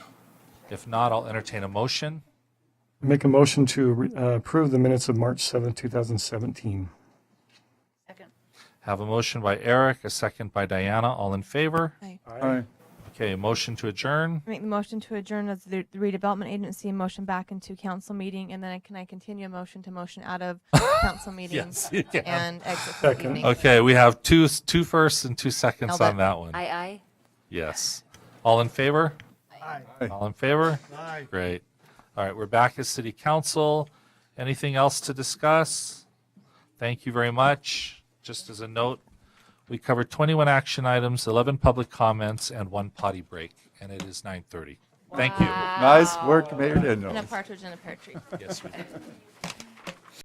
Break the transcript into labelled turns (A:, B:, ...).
A: If not, I'll entertain a motion.
B: Make a motion to re- uh, approve the minutes of March seventh, two 2017.
C: Second.
A: Have a motion by Eric, a second by Diana. All in favor?
B: Aye.
A: Okay, motion to adjourn.
D: Make the motion to adjourn as the the redevelopment agency, motion back into council meeting, and then I- can I continue a motion to motion out of council meeting
A: Yes, you can.
D: and exit for the
B: Second.
D: evening?
A: Okay, we have two two firsts and two seconds
D: I'll
A: on that one.
C: Aye, aye.
A: Yes. All in favor? Aye. All in favor? Aye. Great. All right, we're back as city council. Anything else to discuss? Thank you very much. Just as a note, we covered 21 action items, 11 public comments, and one potty break, and it is 9:30. Thank you.
E: Nice work, Mayor
D: And a
E: Daniels.
D: partridge in a pear tree.
A: Yes, we did.